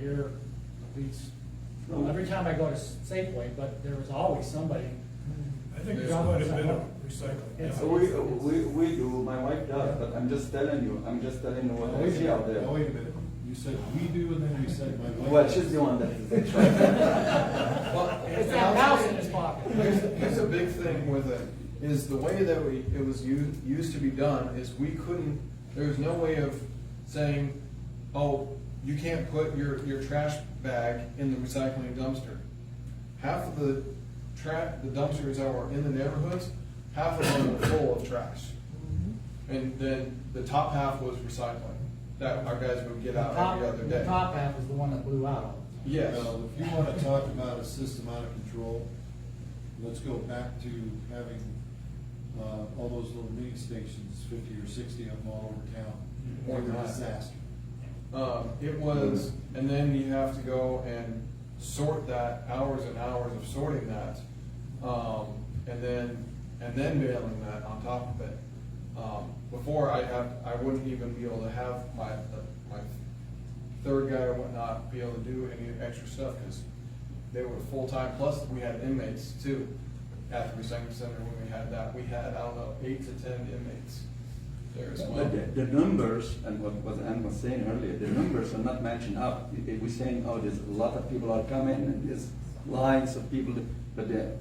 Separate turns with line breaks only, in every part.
here, these, well, every time I go to Safeway, but there was always somebody.
I think
Yeah.
there's quite a bit of recycling.
It's-
yeah.
We, uh, we, we do, my wife does, but I'm just telling you, I'm just telling you what I see out there.
Now, wait a minute, you said we do, and then you said my wife.
Well, she's the one that is actually.
It's that mouse in his pocket.
Here's, here's a big thing with it, is the way that we, it was u- used to be done, is we couldn't, there was no way of saying, oh, you can't put your, your trash bag in the recycling dumpster. Half of the tra, the dumpsters that were in the neighborhoods, half of them were full of trash. And then the top half was recycling, that our guys would get
The
out
top,
every other
the
day.
top half was the one that blew out.
Yes.
Well, if you wanna talk about a system out of control, let's go back to having, uh, all those little mini stations, fifty or sixty of them all over town. They
Or
were a
not.
disaster.
Um, it was, and then you have to go and sort that, hours and hours of sorting that. Um, and then, and then mailing that on top of it. Um, before I have, I wouldn't even be able to have my, my third guy or whatnot be able to do any extra stuff, cause they were full-time, plus we had inmates too. At the recycling center, when we had that, we had, I don't know, eight to ten inmates there as well.
But the, the numbers, and what, what Ann was saying earlier, the numbers are not matching up. I- I- We're saying, oh, there's a lot of people are coming, and there's lines of people, but they're,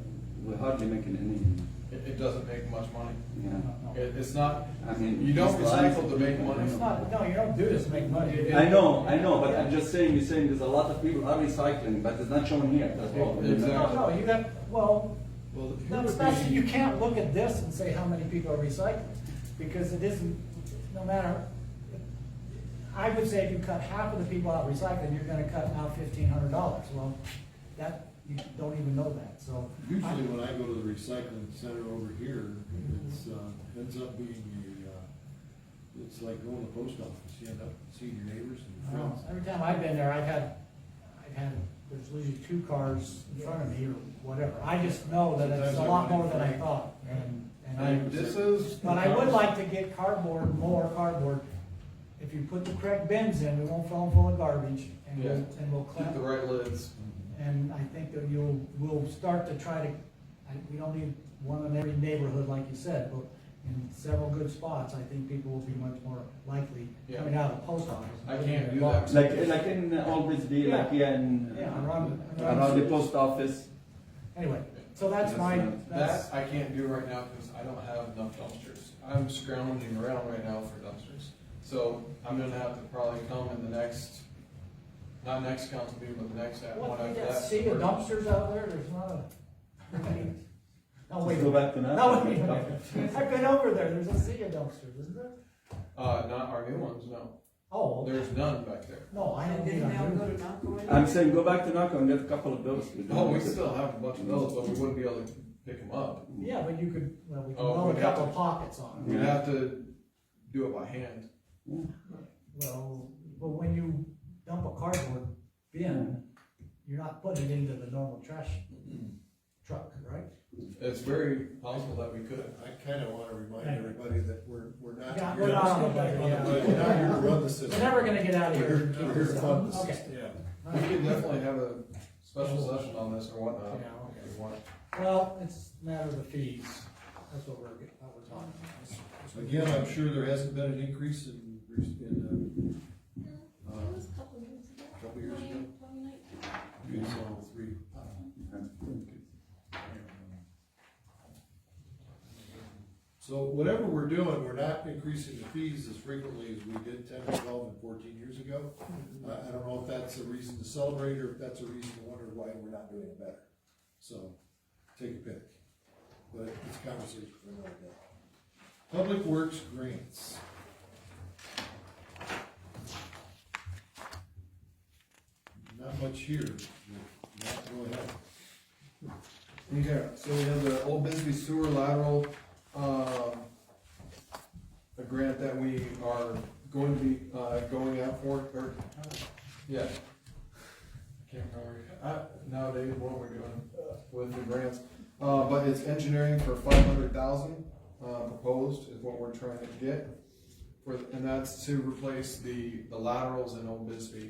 we're hardly making any,
It, it doesn't make much money.
you know.
It, it's not,
I mean,
you don't
these lines-
recycle to make money.
It's not, no, you don't do this to make money.
I know, I know, but I'm just saying, you're saying there's a lot of people are recycling, but it's not shown here, that's all.
Exactly.
No, no, you got, well,
Well, who
no,
would
especially,
be-
you can't look at this and say how many people are recycling, because it isn't, no matter, I would say if you cut half of the people out recycling, you're gonna cut out fifteen hundred dollars, well, that, you don't even know that, so. I-
Usually when I go to the recycling center over here, it's, uh, ends up being a, uh, it's like going to the post office, you end up seeing your neighbors and
I don't know.
friends.
Every time I've been there, I've had, I've had, there's usually two cars in front of me or whatever. I just know that it's a lot more than I thought, and, and I,
And this is.
but I would like to get cardboard, more cardboard. If you put the correct bins in, we won't fill them full of garbage, and we'll,
Yeah.
and we'll
Keep the
clean.
right lids.
And I think that you'll, we'll start to try to, I, we don't need one in every neighborhood, like you said, but in several good spots, I think people will be much more likely coming out of the post office.
I can't do that.
Like, like in always be like here in,
Yeah, around-
around the post office.
Anyway, so that's my, that's,
That I can't do right now because I don't have enough dumpsters. I'm scrounging around right now for dumpsters. So I'm gonna have to probably come in the next, not next council meeting, but the next. one
what,
after
you got
that.
sea of dumpsters out there, there's not a. No, Oh, wait,
Go back to that.
no, wait, a minute. I've been over there, there's a sea of dumpsters, isn't there?
Uh, not our new ones, no.
Oh, okay.
There's none back there.
no, I don't
And
need
then now go
a.
to Naco.
I'm saying go back to Naco and get a couple of those. We don't
Oh, we
need it.
still have a bunch of those, but we wouldn't be able to pick them up.
Yeah, but you could, well, we can
Oh,
blow a
we have
couple
to-
pockets on it.
We'd have to do it by hand.
Well, but when you dump a cardboard bin, you're not putting it into the normal trash truck, right?
It's very possible that we could.
I kinda wanna remind everybody that we're, we're not.
Yeah, we're not on the budget, yeah.
We're not here to run the
We're
system.
never gonna get out of
We're
here.
here- we're here to fund the
Okay.
system.
We could definitely have a special session on this or whatnot.
Yeah, okay.
if you want.
Well, it's a matter of the fees, that's what we're, what we're talking about.
Again, I'm sure there hasn't been an increase in, in, uh, uh, couple years ago. you saw three. So whatever we're doing, we're not increasing the fees as frequently as we did ten, twelve, and fourteen years ago. I, I don't know if that's a reason to celebrate, or if that's a reason to wonder why we're not doing it better. So, take a pick, but it's a conversation for another day. Public Works grants. Not much here, not really helpful.
Okay, so we have the Old Bisbee Sewer Lateral, um, a grant that we are going to be, uh, going out for, or, yeah. I Can't remember, uh, nowadays, what we're doing with the grants, uh, but it's engineering for five hundred thousand, uh, proposed is what we're trying to get. For, and that's to replace the, the laterals in Old Bisbee